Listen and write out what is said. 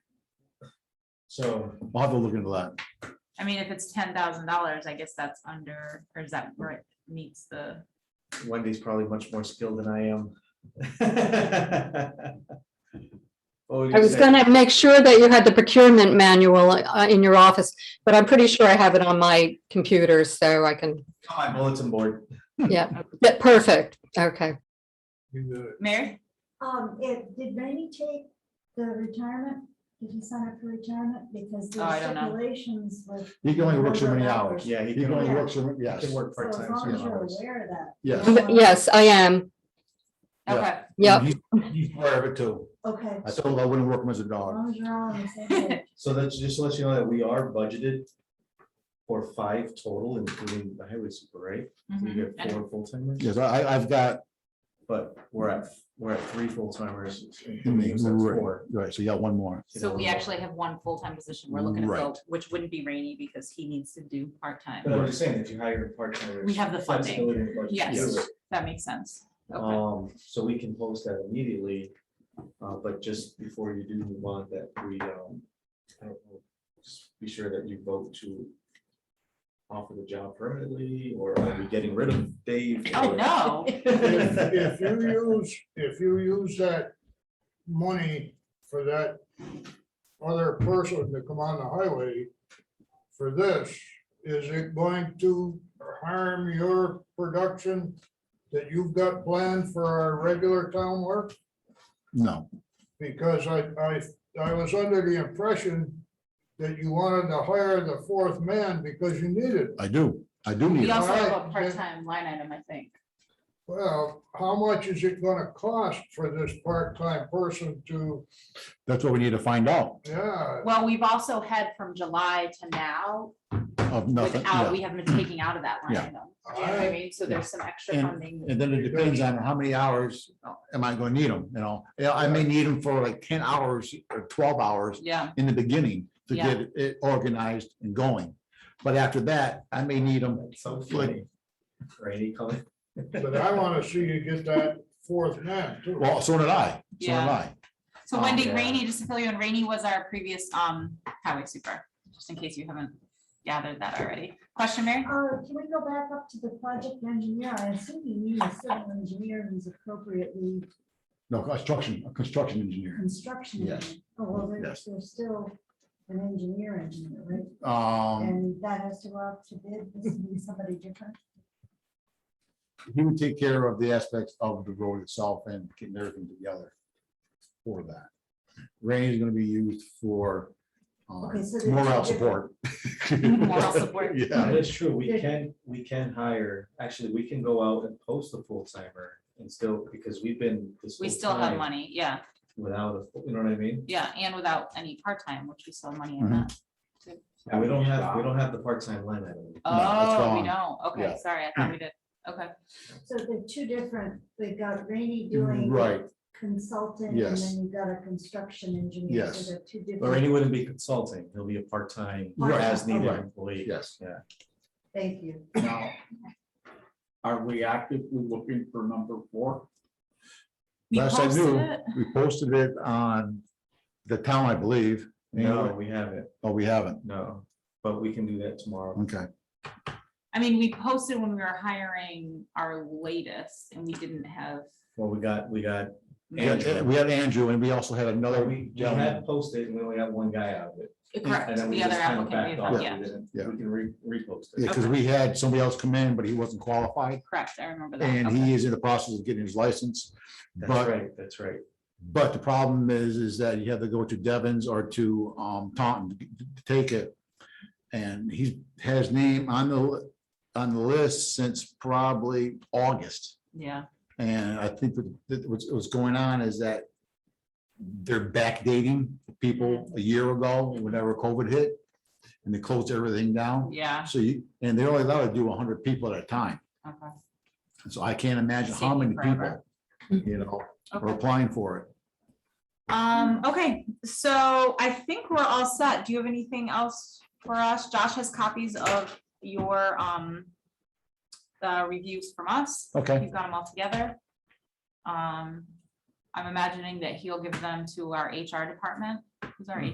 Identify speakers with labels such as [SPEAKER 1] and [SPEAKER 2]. [SPEAKER 1] So
[SPEAKER 2] I'll have to look into that.
[SPEAKER 3] I mean, if it's ten thousand dollars, I guess that's under, or is that where it meets the,
[SPEAKER 1] Wendy's probably much more skilled than I am. What were you
[SPEAKER 4] I was
[SPEAKER 1] say?
[SPEAKER 4] gonna make sure that you had the procurement manual uh, in your office, but I'm pretty sure I have it on my computer, so I can,
[SPEAKER 1] On My bulletin board.
[SPEAKER 4] yeah, Yeah, perfect, okay.
[SPEAKER 3] Mary?
[SPEAKER 5] Um, it, did Rainey take the retirement? Did he sign up for retirement? Because
[SPEAKER 3] Oh, I
[SPEAKER 5] the
[SPEAKER 3] don't know.
[SPEAKER 5] stipulations with.
[SPEAKER 2] He can only work so many
[SPEAKER 5] Number of
[SPEAKER 2] hours.
[SPEAKER 1] Yeah, he
[SPEAKER 2] He can
[SPEAKER 1] can,
[SPEAKER 2] only
[SPEAKER 1] work-
[SPEAKER 2] work so,
[SPEAKER 1] he
[SPEAKER 2] yes,
[SPEAKER 1] can work
[SPEAKER 5] So as
[SPEAKER 1] part-time.
[SPEAKER 5] long as
[SPEAKER 1] some
[SPEAKER 5] you're
[SPEAKER 1] hours.
[SPEAKER 5] aware of that.
[SPEAKER 2] yes.
[SPEAKER 5] Um,
[SPEAKER 4] Yes, I am,
[SPEAKER 2] Yeah.
[SPEAKER 3] Okay,
[SPEAKER 4] yep,
[SPEAKER 2] He- He's aware of it too.
[SPEAKER 5] Okay,
[SPEAKER 2] I
[SPEAKER 5] as
[SPEAKER 2] told him I wouldn't work him as a dog.
[SPEAKER 5] long as you're all on the same page.
[SPEAKER 1] So that's just to let you know that we are budgeted for five total, including the highway super, right? We
[SPEAKER 3] mhm, I
[SPEAKER 1] get
[SPEAKER 3] know.
[SPEAKER 1] four full timers,
[SPEAKER 2] Yes, I, I- I've got,
[SPEAKER 1] but we're at, we're at three full timers.
[SPEAKER 2] right, right, so you got one more.
[SPEAKER 3] so we actually have one full-time position we're looking to fill,
[SPEAKER 2] Right.
[SPEAKER 3] which wouldn't be Rainy because he needs to do part-time.
[SPEAKER 1] But I'm just saying, if you hire a part-timer.
[SPEAKER 3] We have the funding. Yes.
[SPEAKER 1] Yes.
[SPEAKER 3] That makes sense. Okay.
[SPEAKER 2] Uh,
[SPEAKER 1] Um, so we can post that immediately, uh, but just before you do move on, that we, um, I don't know, just be sure that you vote to offer the job permanently, or are we getting rid of Dave?
[SPEAKER 3] Oh, no.
[SPEAKER 6] If if you use, if you use that money for that other person to come on the highway for this, is it going to harm your production that you've got planned for our regular town work?
[SPEAKER 2] No,
[SPEAKER 6] Because I, I, I was under the impression that you wanted to hire the fourth man because you needed.
[SPEAKER 2] I do, I do need
[SPEAKER 3] We
[SPEAKER 2] it.
[SPEAKER 3] also have a
[SPEAKER 6] Alright.
[SPEAKER 3] part-time line item, I think.
[SPEAKER 6] Well, how much is it gonna cost for this part-time person to,
[SPEAKER 2] That's what we need to find out
[SPEAKER 6] yeah,
[SPEAKER 3] Well, we've also had from July to now,
[SPEAKER 2] of nothing.
[SPEAKER 3] without,
[SPEAKER 2] yeah.
[SPEAKER 3] we haven't been taking out of that line
[SPEAKER 2] Yeah.
[SPEAKER 3] item. Do you know what I mean? So there's some extra
[SPEAKER 2] And-
[SPEAKER 3] funding.
[SPEAKER 2] And then it depends on how many hours uh, am I gonna need them, you know? Yeah, I may need them for like ten hours or twelve hours
[SPEAKER 3] Yeah,
[SPEAKER 2] in the beginning to
[SPEAKER 3] Yeah.
[SPEAKER 2] get it organized and going. But after that, I may need them
[SPEAKER 1] So funny. Rainy coming.
[SPEAKER 6] but I wanna see you get that fourth man too.
[SPEAKER 2] Well, so did I, so did
[SPEAKER 3] Yeah.
[SPEAKER 2] I.
[SPEAKER 3] so
[SPEAKER 2] Um,
[SPEAKER 3] Wendy
[SPEAKER 1] yeah.
[SPEAKER 3] Rainey, just to fill you in, Rainey was our previous um highway super, just in case you haven't gathered that already. Question, Mary?
[SPEAKER 5] Uh, can we go back up to the project engineer? I assume you need a civil engineer who's appropriately
[SPEAKER 2] No, construction, a construction engineer.
[SPEAKER 5] construction.
[SPEAKER 2] Yes.
[SPEAKER 5] engineer. Oh, well,
[SPEAKER 2] Yes.
[SPEAKER 5] there's, there's still an engineer engineer, right?
[SPEAKER 2] Um,
[SPEAKER 5] And that has to go out to bid, this would be somebody different.
[SPEAKER 2] he would take care of the aspects of the road itself and getting everything together for that. Rain is gonna be used for um,
[SPEAKER 5] Okay, so there's
[SPEAKER 2] morale
[SPEAKER 5] two
[SPEAKER 2] support.
[SPEAKER 3] Moral support.
[SPEAKER 2] Yeah,
[SPEAKER 1] That is true. We can, we can hire, actually, we can go out and post a full timer and still, because we've been. this
[SPEAKER 3] We
[SPEAKER 1] whole
[SPEAKER 3] still have
[SPEAKER 1] time
[SPEAKER 3] money, yeah,
[SPEAKER 1] Without, a you know what I mean?
[SPEAKER 3] yeah, and without any part-time, which we still have money in
[SPEAKER 2] Mhm.
[SPEAKER 3] that.
[SPEAKER 1] And we don't have, we don't have the part-time line item.
[SPEAKER 2] it's
[SPEAKER 3] Oh, we
[SPEAKER 2] gone.
[SPEAKER 3] don't, okay,
[SPEAKER 2] Yeah.
[SPEAKER 3] sorry, I thought we did, okay.
[SPEAKER 5] So they're two different, they've got Rainy doing.
[SPEAKER 2] Mm-hmm. Right.
[SPEAKER 5] Consultant, and
[SPEAKER 2] Yes.
[SPEAKER 5] then you've got a construction engineer.
[SPEAKER 2] Yes.
[SPEAKER 5] So they're two
[SPEAKER 1] Or he
[SPEAKER 5] different,
[SPEAKER 1] wouldn't be consulting. He'll be a part-time,
[SPEAKER 5] Right.
[SPEAKER 1] as needed
[SPEAKER 2] Right.
[SPEAKER 1] employee.
[SPEAKER 2] yes.
[SPEAKER 5] thank you.
[SPEAKER 7] Now, are we actively looking for number four?
[SPEAKER 3] We
[SPEAKER 2] Last I
[SPEAKER 3] posted
[SPEAKER 2] knew,
[SPEAKER 3] it.
[SPEAKER 2] we posted it on the town, I believe.
[SPEAKER 1] No, we haven't.
[SPEAKER 2] Oh, we haven't.
[SPEAKER 1] No, but we can do that tomorrow.
[SPEAKER 2] Okay,
[SPEAKER 3] I mean, we posted when we were hiring our latest and we didn't have.
[SPEAKER 1] Well, we got, we got,
[SPEAKER 2] we had we had Andrew and we also had another.
[SPEAKER 1] we we
[SPEAKER 2] gentleman.
[SPEAKER 1] had posted and we only got one guy out of it.
[SPEAKER 3] Correct,
[SPEAKER 1] And then we
[SPEAKER 3] the other
[SPEAKER 1] just kinda
[SPEAKER 3] applicant, we
[SPEAKER 1] backed
[SPEAKER 3] had,
[SPEAKER 1] off.
[SPEAKER 3] yeah,
[SPEAKER 1] We didn't-
[SPEAKER 2] Yeah.
[SPEAKER 1] We can re, repost
[SPEAKER 2] Yeah,
[SPEAKER 1] it.
[SPEAKER 2] because we had somebody else come in, but he wasn't qualified,
[SPEAKER 3] correct, I remember that.
[SPEAKER 2] and
[SPEAKER 3] okay.
[SPEAKER 2] he is in the process of getting his license.
[SPEAKER 1] That's
[SPEAKER 2] But,
[SPEAKER 1] right, that's right.
[SPEAKER 2] but the problem is, is that you have to go to Devon's or to um, Taunton to to take it. And he's had his name on the, li- on the list since probably August.
[SPEAKER 3] Yeah,
[SPEAKER 2] And I think that- that what's, what's going on is that they're backdating people a year ago, whenever COVID hit, and they closed everything down.
[SPEAKER 3] yeah,
[SPEAKER 2] So you, and they're only allowed to do hundred people at a time.
[SPEAKER 3] okay.
[SPEAKER 2] So I can't imagine
[SPEAKER 3] It's
[SPEAKER 2] how many
[SPEAKER 3] taking
[SPEAKER 2] people,
[SPEAKER 3] forever.
[SPEAKER 2] you know, are
[SPEAKER 3] Okay.
[SPEAKER 2] applying for it.
[SPEAKER 3] Um, okay, so I think we're all set. Do you have anything else for us? Josh has copies of your, um, the reviews from us.
[SPEAKER 2] Okay.
[SPEAKER 3] You've got them all together. Um, I'm imagining that he'll give them to our HR department, who's our